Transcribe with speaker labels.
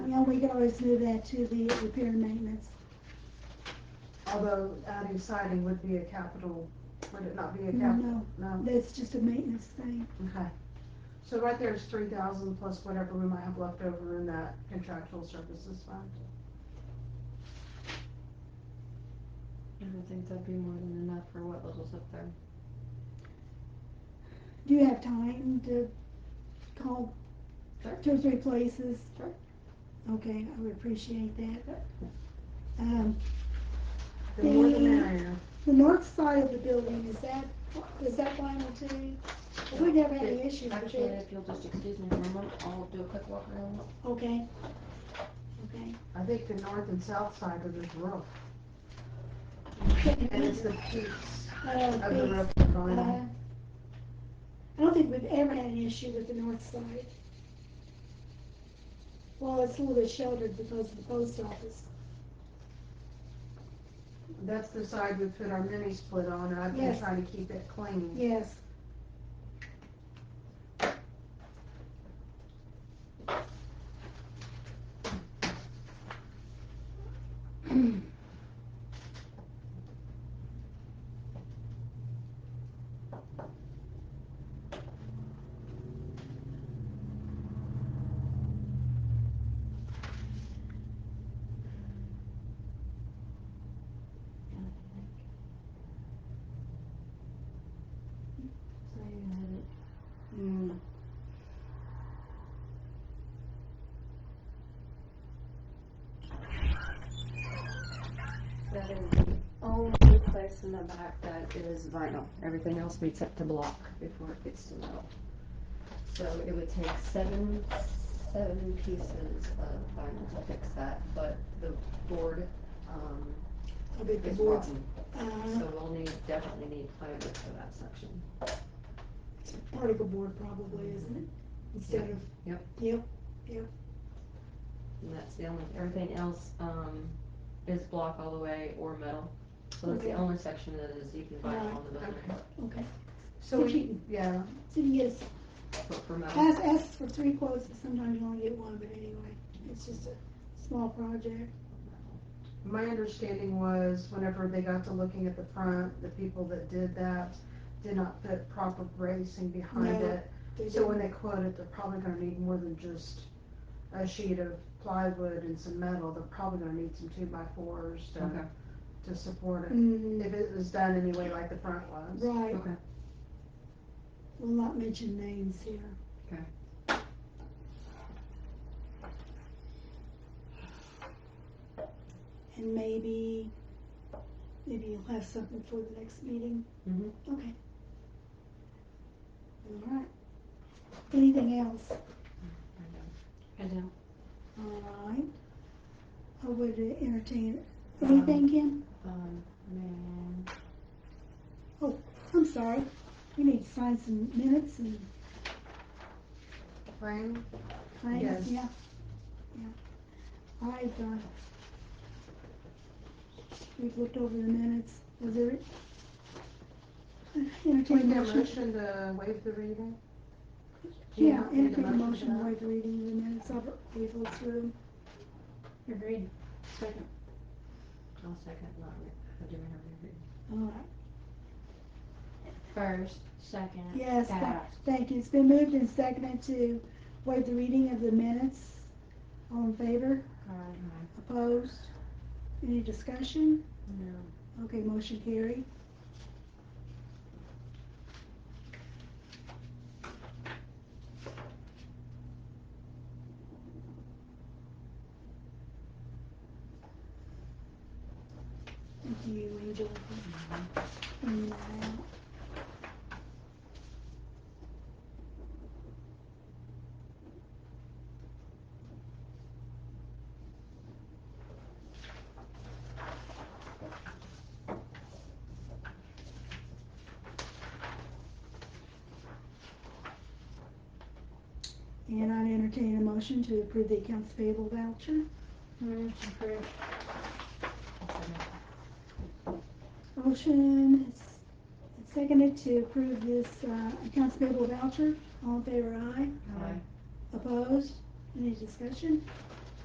Speaker 1: Yeah, we could always move that to the repair and maintenance.
Speaker 2: Although adding siding would be a capital, would it not be a
Speaker 1: No,
Speaker 2: capital?
Speaker 1: no,
Speaker 2: No,
Speaker 1: that's just a maintenance thing.
Speaker 2: okay. So right there is three thousand plus whatever we might have left over in that contractual services fund.
Speaker 3: I don't think that'd be more than enough for what levels up there.
Speaker 1: Do you have time to call
Speaker 3: Sure.
Speaker 1: two or three places?
Speaker 3: Sure.
Speaker 1: Okay, I would appreciate that.
Speaker 3: Yep.
Speaker 1: Um,
Speaker 2: The more the
Speaker 1: The-
Speaker 2: merrier.
Speaker 1: the north side of the building, is that, is that vinyl too? We never had any issues with
Speaker 3: Actually,
Speaker 1: it.
Speaker 3: if you'll just excuse me for a moment, I'll do a quick walk around.
Speaker 1: Okay. Okay.
Speaker 2: I think the north and south side of this roof, and it's the peaks
Speaker 1: Uh,
Speaker 2: of the
Speaker 1: it's-
Speaker 2: roof.
Speaker 1: Uh,
Speaker 2: vinyl.
Speaker 1: I don't think we've ever had an issue with the north side. Well, it's a little bit sheltered because of the post office.
Speaker 2: That's the side we put our mini split on, and I've been
Speaker 1: Yes.
Speaker 2: trying to keep it clean.
Speaker 1: Yes.
Speaker 3: So you had it.
Speaker 2: Mm.
Speaker 3: That is the only place in the back that is vinyl. Everything else meets up to block before it gets to metal. So it would take seven, seven pieces of vinyl to fix that, but the board, um,
Speaker 1: I bet the
Speaker 3: is
Speaker 1: boards,
Speaker 3: rotten.
Speaker 1: uh,
Speaker 3: So we'll need, definitely need plywood for that section.
Speaker 1: particle board probably, isn't it? Instead of.
Speaker 3: Yep.
Speaker 1: Yep,
Speaker 3: And that's the only, everything else, um, is block all the way or metal. So that's the
Speaker 1: Okay.
Speaker 3: only section that is, you can buy
Speaker 1: Alright,
Speaker 3: on the building,
Speaker 1: okay.
Speaker 2: So we, yeah,
Speaker 1: So you get,
Speaker 3: but for metal,
Speaker 1: ask, ask for three quotes, and sometimes you only get one, but anyway, it's just a small project.
Speaker 2: my understanding was whenever they got to looking at the front, the people that did that did not put proper bracing behind
Speaker 1: No.
Speaker 2: it.
Speaker 1: They
Speaker 2: So when
Speaker 1: didn't-
Speaker 2: they quote it, they're probably gonna need more than just a sheet of plywood and some metal, they're probably gonna need some two by fours
Speaker 3: Okay.
Speaker 2: to, to support it.
Speaker 1: Mm,
Speaker 2: If it was done anyway like the front was.
Speaker 1: Right,
Speaker 3: okay,
Speaker 1: we'll not mention names here. And maybe, maybe you'll have something for the next meeting?
Speaker 3: Mhm.
Speaker 1: Okay. All right. Anything else?
Speaker 3: I do.
Speaker 1: All right. I would entertain, anything, Kim?
Speaker 3: Um, man,
Speaker 1: I'm sorry. We need to sign some minutes and
Speaker 2: Frame, Yes.
Speaker 1: things, yeah. Yeah. I've, uh, we've looked over the minutes. Was there?
Speaker 2: can
Speaker 1: Entertain
Speaker 2: we get a
Speaker 1: motion?
Speaker 2: motion to waive the reading? Do you
Speaker 1: Yeah,
Speaker 2: not need
Speaker 1: entertain a motion
Speaker 2: for
Speaker 1: to
Speaker 2: that?
Speaker 1: waive the reading of the minutes, I'll, we've looked through them.
Speaker 3: agreed, second. I'll second, not re, I do remember agreed.
Speaker 1: All right,
Speaker 4: First, second.
Speaker 1: yes, tha-
Speaker 4: that.
Speaker 1: thank you, it's been moved and seconded to waive the reading of the minutes. All in favor,
Speaker 4: Alright.
Speaker 1: opposed, any discussion?
Speaker 3: No.
Speaker 1: Okay, motion carried. Thank you, Angel. for bringing that out. And I'd entertain a motion to approve the accounts payable voucher.
Speaker 4: Move to approve.
Speaker 1: Motion is seconded to approve this uh, accounts payable voucher. All in favor, aye.
Speaker 3: Aye.
Speaker 1: Opposed? Any discussion?